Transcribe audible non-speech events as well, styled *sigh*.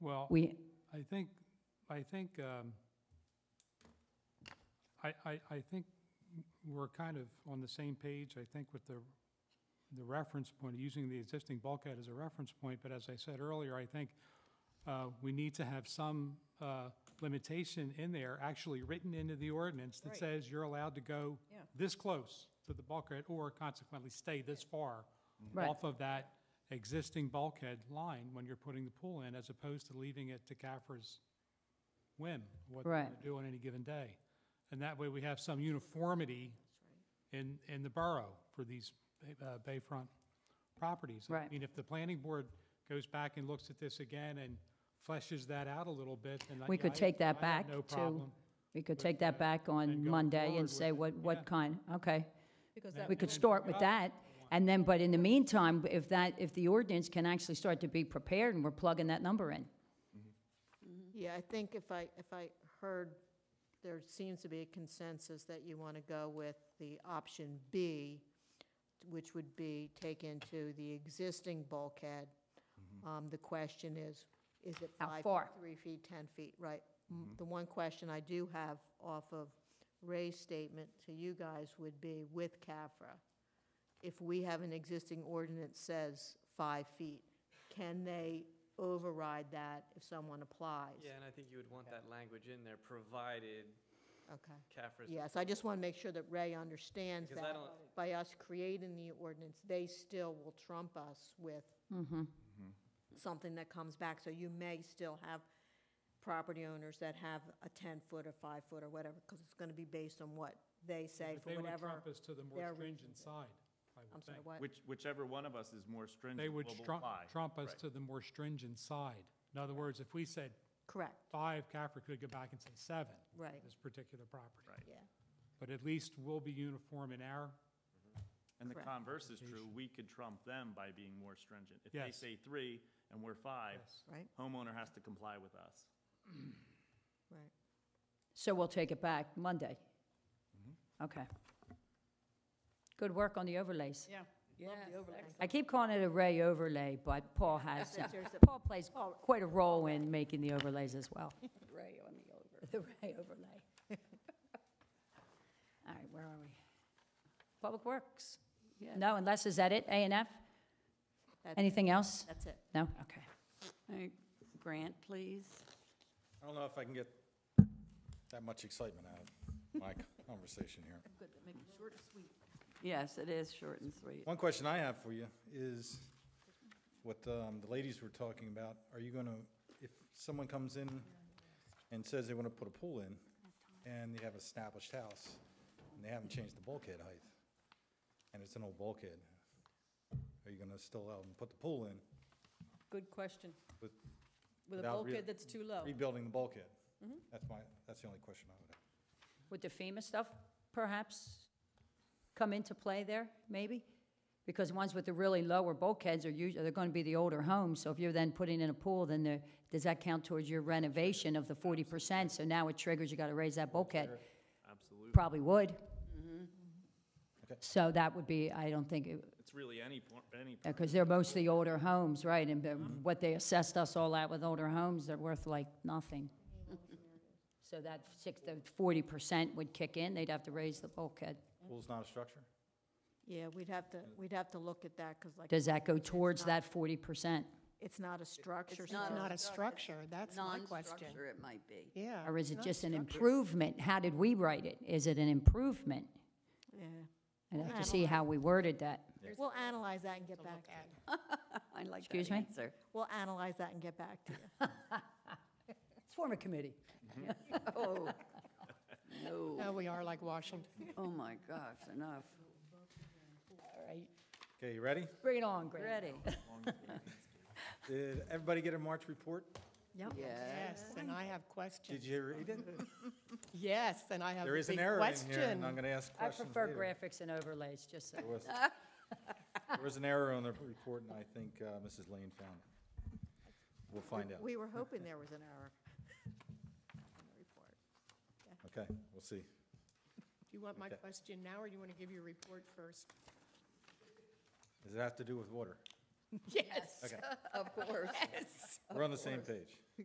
Well, We, I think, I think, um, I, I, I think we're kind of on the same page, I think with the, the reference point, using the existing bulkhead as a reference point, but as I said earlier, I think uh, we need to have some uh, limitation in there, actually written into the ordinance that Right. says you're allowed to go Yeah. this close to the bulkhead, or consequently stay this far Right. off of that existing bulkhead line when you're putting the pool in, as opposed to leaving it to CAFR's whim, what they're going Right. to do on any given day. And that way, we have some uniformity in, in the borough for these uh, bayfront properties. I Right. mean, if the planning board goes back and looks at this again and fleshes that out a little bit, then. I- We yeah, could I- take that I have back no to- problem. we could But, take uh, that back and on going Monday forward and say with- what, yeah. what kind, okay. Because that. We And could then start pick with up that, and then, but in the meantime, if that, if the ordinance can actually start to be prepared and we're plugging that number in. Yeah, I think if I, if I heard, there seems to be a consensus that you want to go with the option B, which would be take into the existing bulkhead. Um, The question is, is it How five? far? Three feet, 10 feet, right. M- The one question I do have off of Ray's statement to you guys would be with CAFRA, if we have an existing ordinance says five feet, can they override that if someone applies? Yeah, and I think you would want that language in there, provided Okay. CAFRA's. Yes, I just want to make sure that Ray understands Because I that don't- by us creating the ordinance, they still will trump us with Mm-hmm. something that comes back. So you may still have property owners that have a 10-foot or 5-foot or whatever, because it's going to be based on what they say But for They would whatever. trump us to the more their stringent side, I I'm would sorry, think. what? Which, whichever one of us is more They stringent will would trump, apply. trump us Right. to the more stringent side. In other words, if we said Correct, five, CAFR could go back and say seven. for Right. This particular property. Right. yeah. But at least we'll be uniform in our, And the Correct. converse is true, we could trump them by being more stringent. If they Yes. say three and we're five, Yes. Right. homeowner has to comply with us. Right. So we'll take it back Monday. Mm-hmm. Okay. Good work on the overlays. Yeah. Love the overlays. I keep calling it a Ray overlay, but Paul has, uh, There's a- Paul plays quite a role in making the overlays as well. Ray on the over. *laughs* The Ray overlay. *laughs* All right, where are we? Public Works? Yeah. No, unless, is that it, A and F? That's- Anything else? That's it. No? Okay. All right, Grant, please. I don't know if I can get that much excitement out of my conversation here. Yes, it is short and sweet. One question I have for you is what um, the ladies were talking about. Are you going to, if someone comes in and says they want to put a pool in and they have an established house and they haven't changed the bulkhead height and it's an old bulkhead, are you going to still allow them to put the pool in Good question. with, With a Without re- bulkhead that's too low. rebuilding the bulkhead? That's my, that's the only question I would have. Would the FEMA stuff perhaps come into play there, maybe? Because ones with the really lower bulkheads are usually, they're gonna be the older homes, so if you're then putting in a pool, then the, does that count towards your renovation of the forty percent? So now it triggers, you gotta raise that bulkhead. Absolutely. Probably would. Okay. So that would be, I don't think, it- It's really any, por- any. Yeah, because they're mostly older homes, right, and the- what they assessed us all at with older homes, they're worth like nothing. So that six, the forty percent would kick in, they'd have to raise the bulkhead. Pool's not a structure? Yeah, we'd have to, we'd have to look at that, because like, Does that go towards that forty percent, it's not a structure. so- not not a structure, that's my question. Non-structure it might be. Yeah. or is it not just an structure. improvement? How did we write it? Is it an improvement? Yeah. I'd have to see how we worded that. We'll analyze that and get back. to you. I like Excuse that me? answer. *laughs* We'll analyze that and get back to you. Let's form a committee. Oh, no. No, we are like Washington. Oh, my gosh, enough. All right, Okay, you ready? bring it on, Greg. Ready? *laughs* Did everybody get a March report? Yeah. Yes, and I have Did questions. you read it? Yes, and I have a There big is question. an error in here, and I'm going to ask I questions prefer later. graphics and overlays, just so. There was- There was an error on the report, and I think uh, Mrs. Lane found it. We'll find out. We were hoping there was an error *laughs* in the report. Okay, we'll see. Do you want my Okay. question now, or you want to give your report first? Does it have to do with water? Yes. Okay, Of course. we're on the same page.